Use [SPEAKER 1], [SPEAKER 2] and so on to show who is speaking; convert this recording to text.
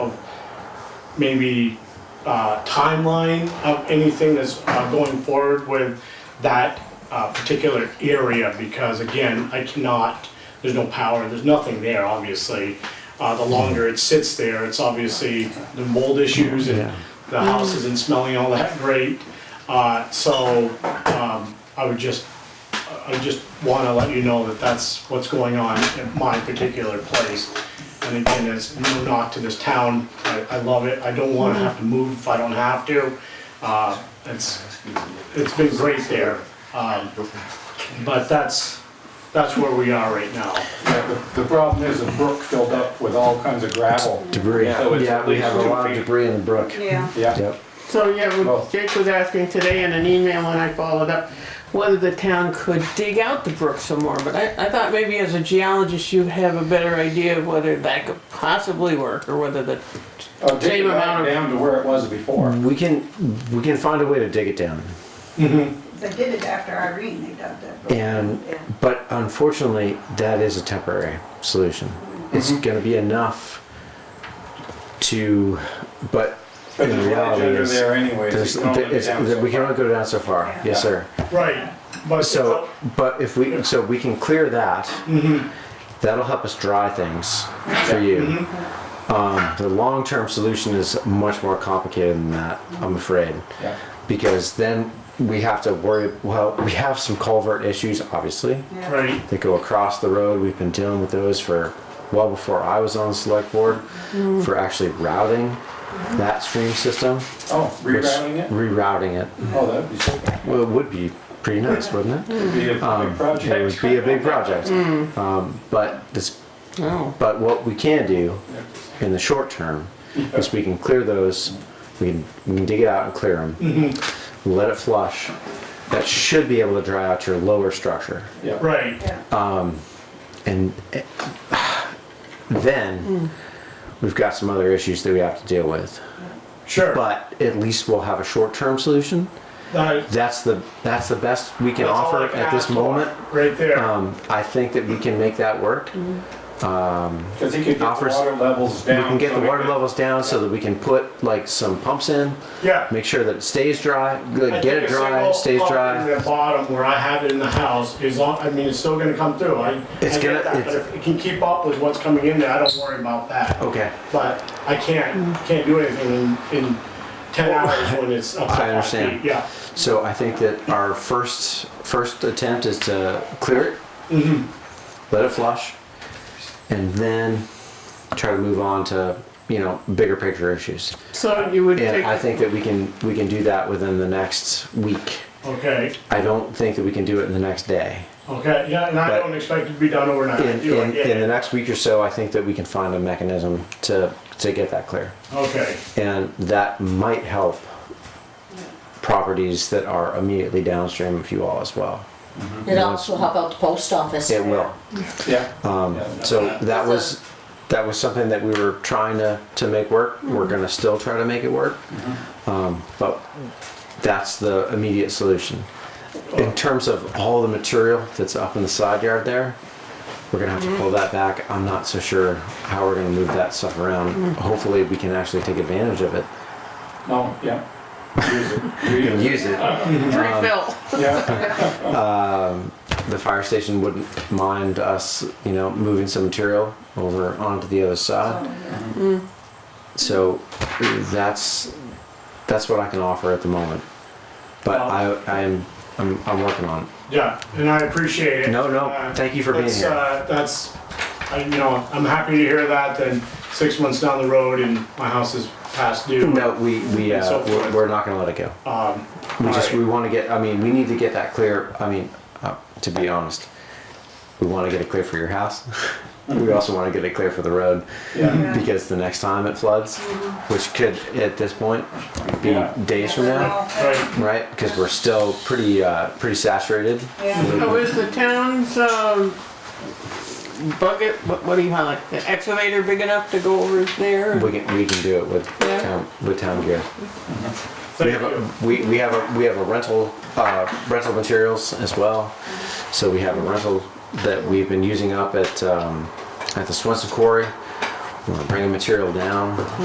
[SPEAKER 1] maybe uh, timeline of anything that's uh, going forward with that uh, particular area, because again, I cannot, there's no power, there's nothing there, obviously. Uh, The longer it sits there, it's obviously the mold issues and the house isn't smelling all that great. Uh, So um, I would just, I just want to let you know that that's what's going on at my particular place. And again, it's no knock to this town. I, I love it. I don't want to have to move if I don't have to. Uh, It's, it's been great there. Um, But that's, that's where we are right now.
[SPEAKER 2] Yeah, the- The problem is the brook filled up with all kinds of gravel.
[SPEAKER 3] Debris.
[SPEAKER 2] So it's
[SPEAKER 3] Yeah,
[SPEAKER 2] at
[SPEAKER 3] we
[SPEAKER 2] least
[SPEAKER 3] have a
[SPEAKER 2] two
[SPEAKER 3] lot of
[SPEAKER 2] feet.
[SPEAKER 3] debris in the brook.
[SPEAKER 4] Yeah,
[SPEAKER 2] Yeah,
[SPEAKER 3] Yep.
[SPEAKER 5] So yeah,
[SPEAKER 2] Well-
[SPEAKER 5] what Jake was asking today in an email and I followed up whether the town could dig out the brook some more, but I, I thought maybe as a geologist you have a better idea of whether that could possibly work or whether the,
[SPEAKER 2] I'll Uh, take it
[SPEAKER 5] Same
[SPEAKER 2] back
[SPEAKER 5] amount of-
[SPEAKER 2] down to where it was before.
[SPEAKER 3] We can we can find a way to dig it down.
[SPEAKER 4] they did it after Irene, they dug that. brook.
[SPEAKER 3] And
[SPEAKER 4] Yeah.
[SPEAKER 3] but unfortunately, that is a temporary solution. It's
[SPEAKER 4] Mm-hmm.
[SPEAKER 3] going to be enough to, but
[SPEAKER 2] But
[SPEAKER 3] in
[SPEAKER 2] there's ledge
[SPEAKER 3] reality,
[SPEAKER 2] under
[SPEAKER 3] is,
[SPEAKER 2] there anyways.
[SPEAKER 3] there's,
[SPEAKER 2] you can only
[SPEAKER 3] it's-
[SPEAKER 2] down so
[SPEAKER 3] we can
[SPEAKER 2] far.
[SPEAKER 3] only go down so far.
[SPEAKER 4] Yeah.
[SPEAKER 3] Yes, sir.
[SPEAKER 1] Right. But
[SPEAKER 3] So, but if we so we can clear that,
[SPEAKER 2] Mm-hmm.
[SPEAKER 3] that'll help us dry things for you.
[SPEAKER 2] Mm-hmm.
[SPEAKER 3] Um, the long-term solution is much more complicated than that, I'm afraid,
[SPEAKER 2] Yeah.
[SPEAKER 3] because then we have to worry. Well, we have some culvert issues, obviously.
[SPEAKER 4] Yeah.
[SPEAKER 1] Right,
[SPEAKER 3] They go across the road. We've been dealing with those for well before I was on the select board for actually routing that stream system.
[SPEAKER 2] Oh,
[SPEAKER 3] which-
[SPEAKER 2] rerouting it?
[SPEAKER 3] Rerouting it.
[SPEAKER 2] Oh, that'd be super.
[SPEAKER 3] Well, it would be pretty nice, wouldn't it?
[SPEAKER 2] It'd be a big
[SPEAKER 3] Um, It
[SPEAKER 2] project.
[SPEAKER 3] would be a big project.
[SPEAKER 1] Mm.
[SPEAKER 3] Um, but this,
[SPEAKER 5] oh,
[SPEAKER 3] but what we can do in the short term is we can clear those. We can, we can dig it out and clear them.
[SPEAKER 1] Mm-hmm.
[SPEAKER 3] Let it flush. That should be able to dry out your lower structure,
[SPEAKER 2] Yeah.
[SPEAKER 1] right.
[SPEAKER 4] Yeah.
[SPEAKER 3] and eh, then
[SPEAKER 1] Mm.
[SPEAKER 3] we've got some other issues that we have to deal with.
[SPEAKER 1] Sure.
[SPEAKER 3] But at least we'll have a short-term solution.
[SPEAKER 1] That-
[SPEAKER 3] That's the that's the best we can
[SPEAKER 1] that's all
[SPEAKER 3] offer
[SPEAKER 1] I can
[SPEAKER 3] at
[SPEAKER 1] ask
[SPEAKER 3] this
[SPEAKER 1] for,
[SPEAKER 3] moment.
[SPEAKER 1] Right there.
[SPEAKER 3] Um, I think that we can make that work.
[SPEAKER 2] Because he could get the
[SPEAKER 3] Offers-
[SPEAKER 2] water levels down.
[SPEAKER 3] We can get
[SPEAKER 2] so
[SPEAKER 3] the
[SPEAKER 2] we
[SPEAKER 3] water
[SPEAKER 2] could-
[SPEAKER 3] levels down so that we can put like some pumps in,
[SPEAKER 1] Yeah.
[SPEAKER 3] make sure that it stays dry,
[SPEAKER 1] I
[SPEAKER 3] good, get
[SPEAKER 1] think
[SPEAKER 3] it
[SPEAKER 1] a
[SPEAKER 3] dry,
[SPEAKER 1] single
[SPEAKER 3] it stays
[SPEAKER 1] pump
[SPEAKER 3] dry.
[SPEAKER 1] In the bottom where I have it in the house is on, I mean, it's still gonna come through. I, I
[SPEAKER 3] It's
[SPEAKER 1] get
[SPEAKER 3] gonna-
[SPEAKER 1] that, but
[SPEAKER 3] it's-
[SPEAKER 1] if it can keep up with what's coming in there, I don't worry about that.
[SPEAKER 3] Okay,
[SPEAKER 1] But I can't, can't do anything in, in ten hours when it's up to
[SPEAKER 3] I
[SPEAKER 1] five
[SPEAKER 3] understand.
[SPEAKER 1] feet, yeah.
[SPEAKER 3] so I think that our first first attempt is to clear it,
[SPEAKER 1] Mm-hmm.
[SPEAKER 3] let it flush, and then try to move on to you know bigger picture issues.
[SPEAKER 5] so you would
[SPEAKER 3] And
[SPEAKER 5] take,
[SPEAKER 3] I think that we can we can do that within the next week.
[SPEAKER 1] Okay,
[SPEAKER 3] I don't think that we can do it in the next day.
[SPEAKER 1] okay, yeah, and I
[SPEAKER 3] But-
[SPEAKER 1] don't expect it to be done overnight.
[SPEAKER 3] in,
[SPEAKER 1] You know, I
[SPEAKER 3] in,
[SPEAKER 1] get
[SPEAKER 3] in the
[SPEAKER 1] it.
[SPEAKER 3] next week or so, I think that we can find a mechanism to, to get that clear.
[SPEAKER 1] Okay,
[SPEAKER 3] And that might help properties that are immediately downstream of you all as well.
[SPEAKER 6] It also, how about the post office?
[SPEAKER 3] It will.
[SPEAKER 2] Yeah.
[SPEAKER 3] Um,
[SPEAKER 2] Yeah.
[SPEAKER 3] so that was, that was something that we were trying to, to make work. We're gonna still try to make it work. Um, but that's the immediate solution. In terms of all the material that's up in the side yard there, we're gonna have to pull that back. I'm not so sure how we're gonna move that stuff around. Hopefully, we can actually take advantage of it
[SPEAKER 2] No, yeah. Use it.
[SPEAKER 3] and
[SPEAKER 2] Reuse it.
[SPEAKER 3] use it.
[SPEAKER 5] refill.
[SPEAKER 2] Yeah,
[SPEAKER 3] The fire station wouldn't mind us, you know, moving some material over onto the other side. So that's that's what I can offer at the moment. But I I'm I'm, I'm working on it.
[SPEAKER 1] yeah, and I appreciate it.
[SPEAKER 3] No,
[SPEAKER 1] Uh,
[SPEAKER 3] no, thank you for being
[SPEAKER 1] That's,
[SPEAKER 3] here.
[SPEAKER 1] uh, That's, I, you know, I'm happy to hear that, then six months down the road and my house is past due.
[SPEAKER 3] No, we we
[SPEAKER 1] and so
[SPEAKER 3] uh, we're,
[SPEAKER 1] forth.
[SPEAKER 3] we're not going to let it go.
[SPEAKER 1] Um,
[SPEAKER 3] We
[SPEAKER 1] all
[SPEAKER 3] just
[SPEAKER 1] right.
[SPEAKER 3] we want to get. I mean, we need to get that clear. I mean, uh, to be honest, we want to get it clear for your house. we also want to get it clear for the road.
[SPEAKER 2] yeah.
[SPEAKER 3] because the next time it floods, which could at this point be
[SPEAKER 2] Yeah.
[SPEAKER 3] days from now,
[SPEAKER 1] Right,
[SPEAKER 3] right? Because we're still pretty uh, pretty saturated.
[SPEAKER 4] Yeah.
[SPEAKER 5] So is the town's, um, bucket, what, what do you call it, the excavator big enough to go over there?
[SPEAKER 3] We can we can do it with
[SPEAKER 5] Yeah.
[SPEAKER 3] town, with town gear. We
[SPEAKER 1] thank
[SPEAKER 3] have
[SPEAKER 1] you.
[SPEAKER 3] a, we, we have a we have a rental uh, rental materials as well. So we have a rental that we've been using up at um, at the Swenson Quarry. We're bringing material down.